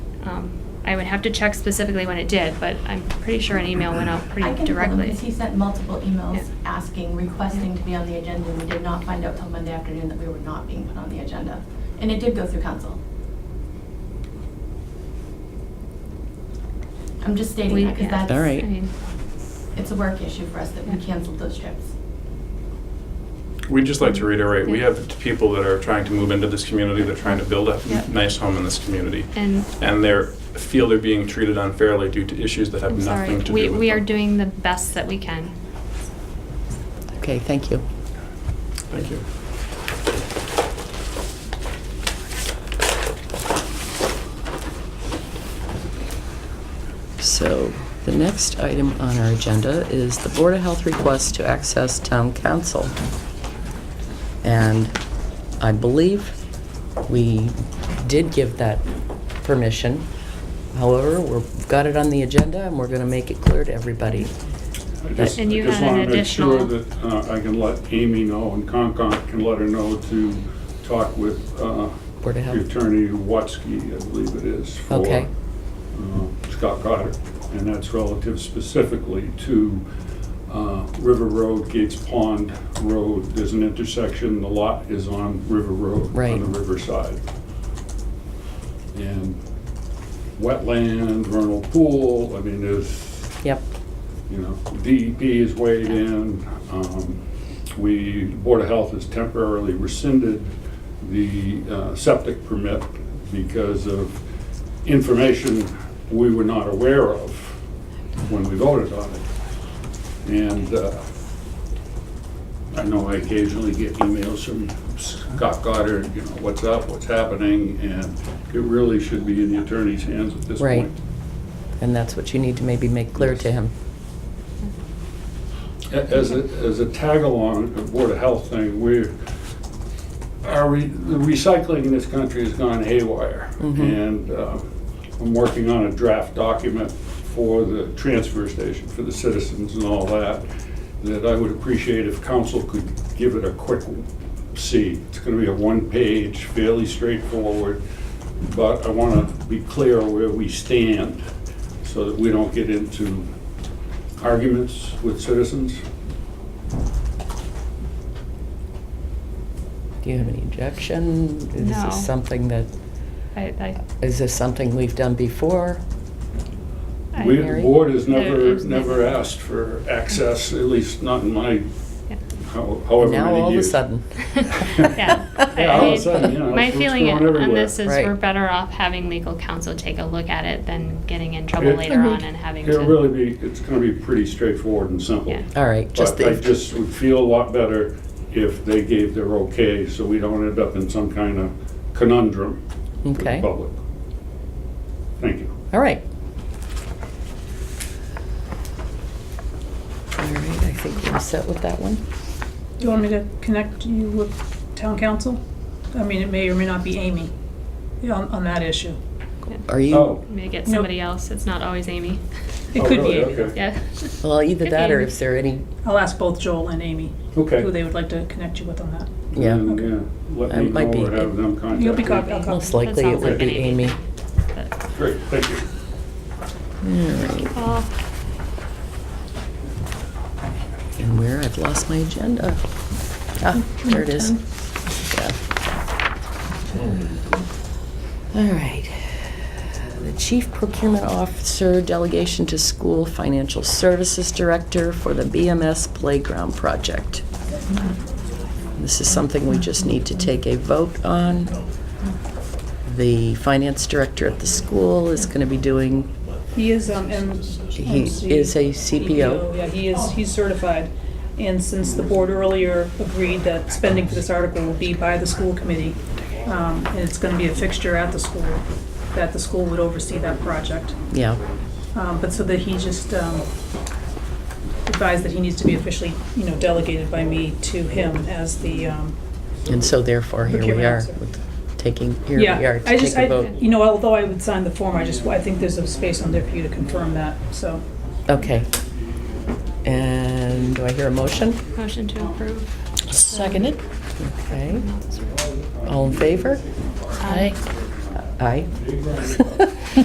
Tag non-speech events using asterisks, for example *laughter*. Um, I would have to check specifically when it did, but I'm pretty sure an email went out I pretty can call him, directly. because he sent multiple emails Yeah. asking, requesting to be on the agenda, and we did not find out till Monday afternoon that we were not being put on the agenda. And it did go through council. I'm just stating We- that, because yeah. that's. All I right. mean, It's a work issue for us that we Yeah. canceled those trips. We'd just like to reiterate, we have people that are trying to move into this community, they're trying to build a Yeah. nice home in this community. And And they feel they're being treated unfairly due to issues that have I'm sorry, nothing to do with we, them. we are doing the best that we can. Okay, thank you. Thank you. So the next item on our agenda is the Board of Health request to access town council. And I believe we did give that permission. However, we've got it on the agenda and we're going to make it clear to everybody. I just, I And you just had an want to make sure additional- that uh, I can let Amy know and Concom can let her know to talk with uh, Board of Health. Attorney Watsky, I believe it is, for Okay. uh, Scott Goddard. And that's relative specifically to uh, River Road, Gates Pond Road. There's an intersection, the lot is on River Road, Right. on the riverside. And wetland, vernal pool, I mean, there's Yep, you know, DEP is weighed in. um, We, Board of Health has temporarily rescinded the uh, septic permit because of information we were not aware of when we voted on it. And uh, I know I occasionally get emails from Scott Goddard, you know, what's up, what's happening? And it really should be in the attorney's hands at this Right. point. and that's what you need to maybe make clear to him. A- As a, as a tag-along, a Board of Health thing, we're, our, re- the recycling in this country has gone haywire. Mhm. And uh, I'm working on a draft document for the transfer station, for the citizens and all that, that I would appreciate if council could give it a quick see. It's gonna be a one-page, fairly straightforward, but I wanna be clear where we stand so that we don't get into arguments with citizens. Do you have any objection? Is No. this something that, I, I, is this something we've done before? I We, the Mary? board has There never, is never never- asked for access, at least not in my, Yeah. how- however many years. Now, all of a sudden. *laughs* Yeah. I- Yeah, all of I- a sudden, you know, My it's- it's feeling going on everywhere. this is Right. we're better off having legal counsel take a look at it than getting in trouble It- later on and having to. It'll really be, it's gonna be pretty straightforward and simple. Yeah. All right, Uh, just But I the, just would feel a lot better if they gave their okay, so we don't end up in some kind of conundrum with the okay, public. Thank you. all right. All right, I think we're set with that one. Do you want me to connect you with town council? I mean, it may or may not be Amy yeah, on, on that issue. Are you, Oh, Maybe get Nope. somebody else, it's not always Amy. *laughs* It Oh, could be really? Amy. Okay. Yeah. well, either that or if there are any, I'll ask both Joel and Amy okay. who they would like to connect you with on that. yeah, And, yeah, let It me might know be- or have them contact me. You'll be copied, I'll copy. most likely it sounds would like be an Amy. Amy. But- uh, Great, thank you. Well, And where, I've lost my agenda. Ah, there it is. Yeah. All right. The Chief Procurement Officer Delegation to School Financial Services Director for the BMS Playground Project. This is something we just need to take a vote on. The Finance Director at the school is going to be doing, He is, um, M- He MC. is a CPO. Yeah, he is, he's certified. And since the board earlier agreed that spending for this article will be by the school committee, um, and it's gonna be a fixture at the school, that the school would oversee that project. yeah, Um, but so that he just, um, advised that he needs to be officially, you know, delegated by me to him as the, um, and so therefore here we Procurement are, officer. with taking, here we yeah. are to I just, take a I- vote. You know, although I would sign the form, I just, I think there's a space on there for you to confirm that, so. Okay. And do I hear a motion? Motion to approve. Seconded. Okay. All in favor? Aye. Aye.